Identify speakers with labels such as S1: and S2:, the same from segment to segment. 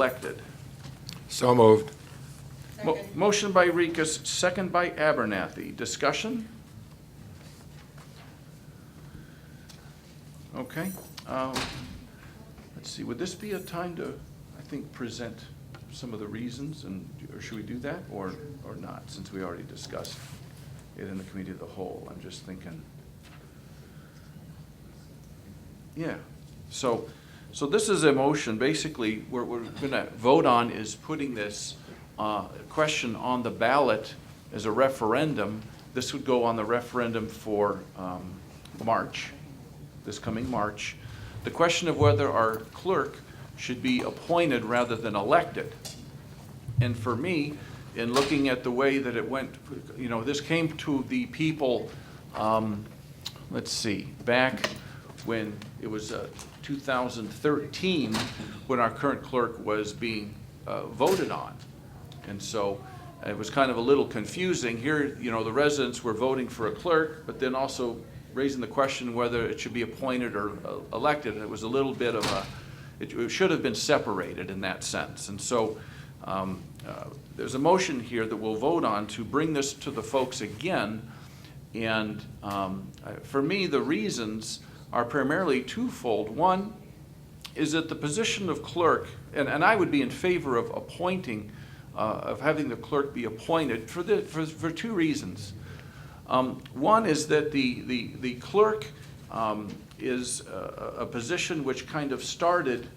S1: elected.
S2: So moved.
S1: Mo- Motion by Rikus, second by Abernathy. Discussion? Okay. um, Let's see, would this be a time to, I think, present some of the reasons, and, or should we do that, or, or not, since we already discussed it in the committee of the whole? I'm just thinking. Yeah, so, so this is a motion, basically, what we're gonna vote on is putting this uh, question on the ballot as a referendum. This would go on the referendum for um, March, this coming March. The question of whether our clerk should be appointed rather than elected. And for me, in looking at the way that it went, you know, this came to the people, um, let's see, back when it was uh, 2013, when our current clerk was being uh, voted on. And so uh, it was kind of a little confusing. Here, you know, the residents were voting for a clerk, but then also raising the question whether it should be appointed or uh, elected. And it was a little bit of a, it it should have been separated in that sense. And so um, uh, there's a motion here that we'll vote on to bring this to the folks again. And um, I- for me, the reasons are primarily twofold. One, is that the position of clerk, and, and I would be in favor of appointing, uh, of having the clerk be appointed for the, for, for two reasons. Um, One is that the, the, the clerk um, is a, a a position which kind of started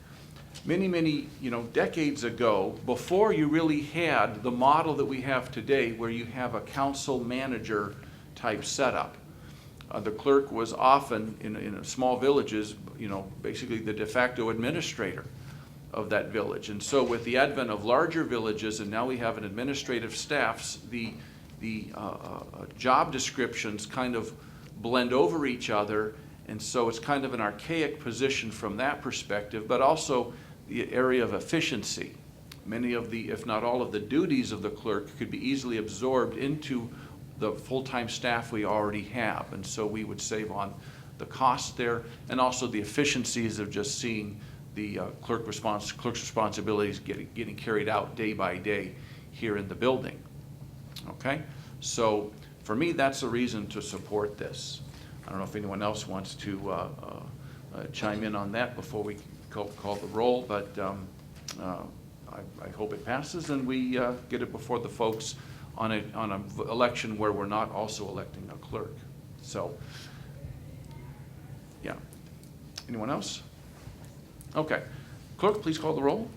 S1: many, many, you know, decades ago, before you really had the model that we have today, where you have a council manager type setup. Uh, the clerk was often, in, in small villages, you know, basically the de facto administrator of that village. And so with the advent of larger villages, and now we have an administrative staffs, the, the uh, uh, uh, job descriptions kind of blend over each other, and so it's kind of an archaic position from that perspective, but also the area of efficiency. Many of the, if not all of the duties of the clerk could be easily absorbed into the full-time staff we already have. And so we would save on the cost there and also the efficiencies of just seeing the uh, clerk response, clerk's responsibilities getting, getting carried out day by day here in the building. Okay? So for me, that's a reason to support this. I don't know if anyone else wants to uh, uh, uh, chime in on that before we call, call the roll, but um, uh, I, I hope it passes and we uh, get it before the folks on a, on an election where we're not also electing a clerk. So, yeah. Anyone else? Okay. Clerk, please call the roll.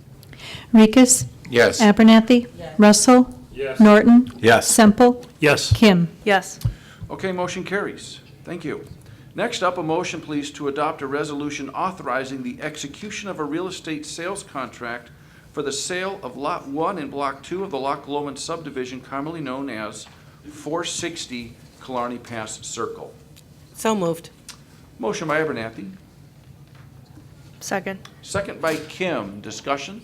S3: Rikus.
S2: Yes.
S3: Abernathy. Russell. Norton.
S2: Yes.
S3: Semple.
S4: Yes.
S3: Kim.
S5: Yes.
S1: Okay, motion carries. Thank you. Next up, a motion, please, to adopt a resolution authorizing the execution of a real estate sales contract for the sale of Lot 1 and Block 2 of the Loch Lomond subdivision commonly known as 460 Killarney Pass Circle.
S5: So moved.
S1: Motion by Abernathy,
S5: Second.
S1: second by Kim. Discussion?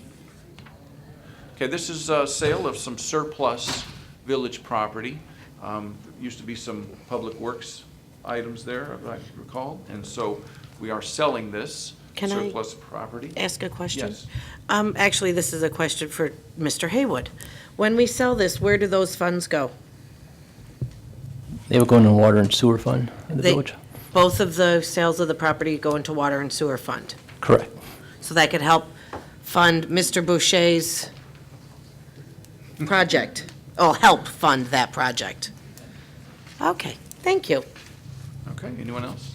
S1: Okay, this is a sale of some surplus village property. Um, there Used to be some public works items there, if I recall, and so we are selling this
S6: Can I-
S1: surplus property.
S6: ask a question?
S1: Yes.
S6: Um, actually, this is a question for Mr. Haywood. When we sell this, where do those funds go?
S4: They were going to water and sewer fund in the
S6: They-
S4: village?
S6: Both of the sales of the property go into water and sewer fund.
S4: Correct.
S6: So that could help fund Mr. Boucher's project, Oh, help fund that project. Okay, thank you.
S1: Okay, anyone else?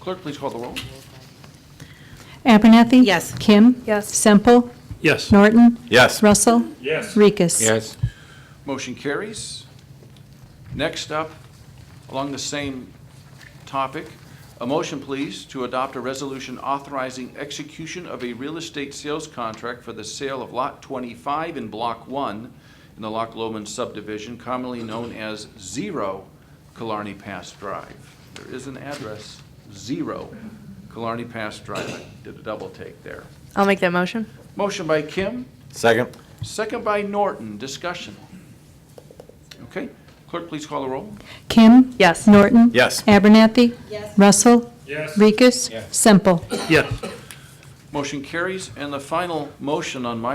S1: Clerk, please call the roll.
S3: Abernathy.
S6: Yes.
S3: Kim.
S5: Yes.
S3: Semple.
S4: Yes.
S3: Norton.
S2: Yes.
S3: Russell. Yes. Rikus.
S2: Yes.
S1: Motion carries. Next up, along the same topic, a motion, please, to adopt a resolution authorizing execution of a real estate sales contract for the sale of Lot 25 in Block 1 in the Loch Lomond subdivision, commonly known as Zero Killarney Pass Drive. There is an address, Zero Killarney Pass Drive. I did a double take there.
S5: I'll make that motion.
S1: Motion by Kim,
S2: Second.
S1: Second by Norton, discussion. Okay, clerk, please call the roll.
S3: Kim.
S5: Yes.
S3: Norton.
S2: Yes.
S3: Abernathy. Russell. Rikus. Semple.
S4: Yes.
S1: Motion carries, and the final motion on my